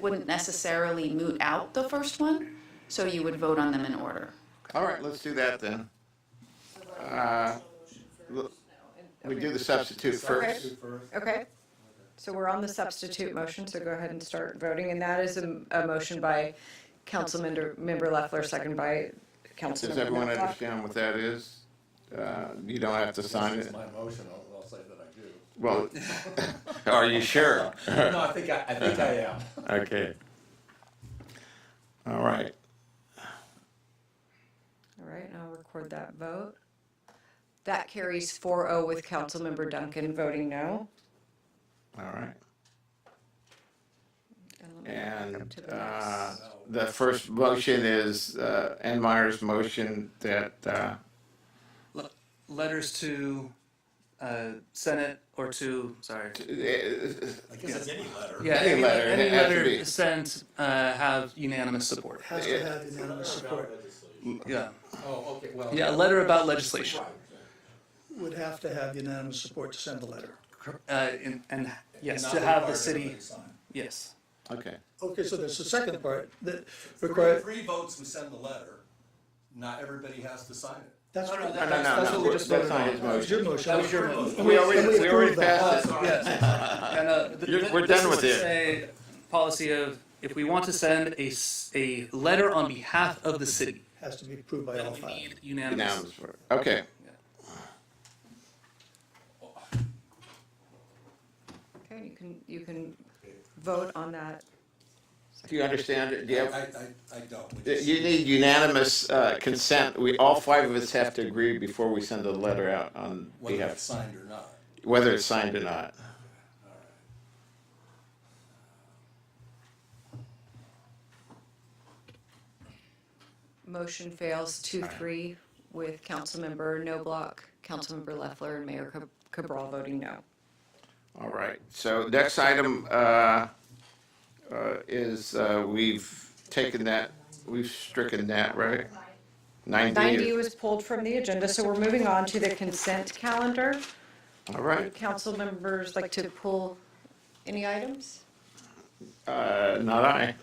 wouldn't necessarily moot out the first one, so you would vote on them in order. All right, let's do that then. Uh, l- We do the substitute first. Okay, so we're on the substitute motion, so go ahead and start voting, and that is a, a motion by Councilmember, member Leffler, second by Councilmember. Does everyone Matlock. understand what that is? Uh, You don't have to sign It's it. my motion, I'll, I'll say that I Well, are you sure? do. No, I think I, I think I am. Okay. All right. All right, and I'll record that vote. That carries 4-0 with Councilmember Duncan voting no. All right. And let me go And to the next. uh, the first motion is uh, Ann Meyer's motion that, uh, Le- letters to uh, Senate or to sorry. it I guess it's any letter. Yeah, Any any, letter, any it has to be. letter sent uh, have unanimous support. Has to have unanimous support, Yeah, Oh, okay, well. yeah, a letter about legislation, would have to have unanimous support to send the letter. uh, and, and yes, to have the city. Yes, okay. Okay, so there's the second part that requires, Three votes, we send the letter, not everybody has to sign it. that's No, no, what, No, no, That's- that's no, what we no, just that's voted not on. his that was your motion. motion. was your motion. And We already, and we we already approved that. passed it. yes. And, uh, th- You're- th- we're this done would with it. say Policy of if we want to send a s- a letter on behalf of the city, Has to be approved by all then we five. need unanimous. Unanimous vote. Okay. Okay, you can, you can vote on that. Do you understand it? Do you I, have- I, I don't. We just- You need unanimous uh, consent. We, all five of us have to agree before we send a letter out on Whether it's behalf, signed or not. whether it's signed or not. Motion fails two, three with Councilmember No Block, Councilmember Leffler, and Mayor Cab- Cabral voting no. All right, so next item uh, uh, is, uh, we've taken that, we've stricken that, right? 90 90, was pulled from the agenda, so we're moving on to the consent calendar. all right, Council members like to pull any items? Uh, not I.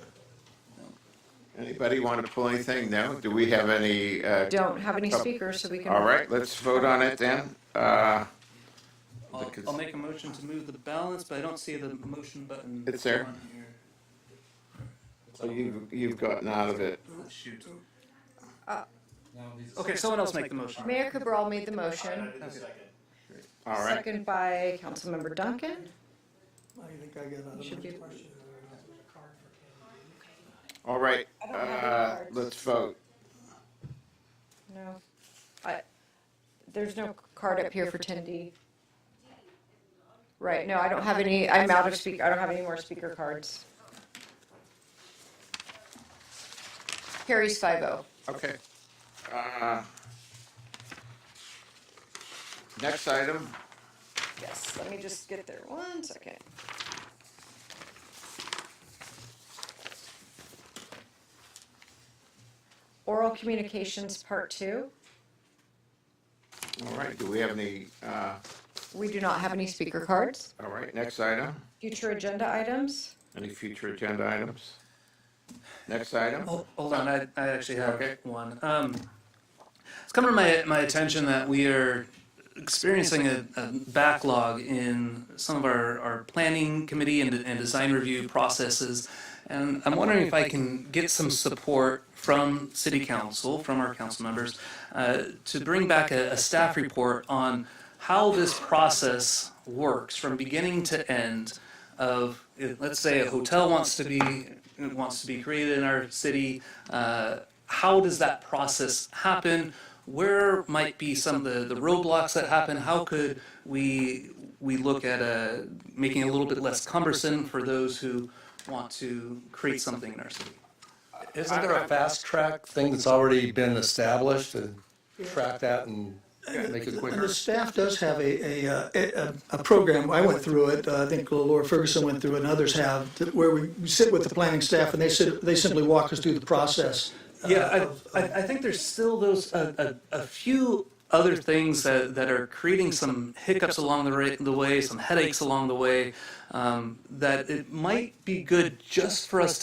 Anybody want to pull anything? No? Do we have any? uh, Don't have any speakers, so we can. All right, let's vote on it then. Uh, I'll, I'll make a motion to move the balance, but I don't see the motion button. It's there. on here. you- You've gotten out of it. Oh, Shoot. Now it needs a Okay, someone else make the motion. Mayor Cabral made the motion, All right. second by Councilmember Duncan. I think I got another Should be- question. All right, don't have any uh, cards. let's vote. No. I, there's no card up here for 10D. Right, no, I don't have any, I'm out of speak, I don't have any more speaker cards. Carries oh. 5-0. Okay. Uh, Next item, Yes, let me just get there one second. Oral communications, part two. all right, do we have any, uh, We do not have any speaker cards. all right, next item, Future agenda items. any future agenda items? Next item, Hol- Hold on, I, I actually have Okay. one. Um, it's come to my, my attention that we are experiencing a, a backlog in some of our, our planning committee and, and design review processes. And I'm wondering if I can get some support from city council, from our council members, uh, to bring back a, a staff report on how this process works from beginning to end of, uh, let's say a hotel wants to be, wants to be created in our city, uh, how does that process happen? Where might be some of the, the roadblocks that happen? How could we, we look at uh making it a little bit less cumbersome for those who want to create something in our city? Isn't there a fast track thing that's already been established to track that and make it And the staff does have a, a, uh, a, a- a program, I went through it, uh, I think Laura Ferguson went through it and others have, that- where we sit with the planning staff and they sit, they simply walk us through the process. uh, Yeah, of- I, I, I think there's still those, a, a, a few other things that, that are creating some hiccups along the, ra- the way, some headaches along the way, um, that it might be good just for us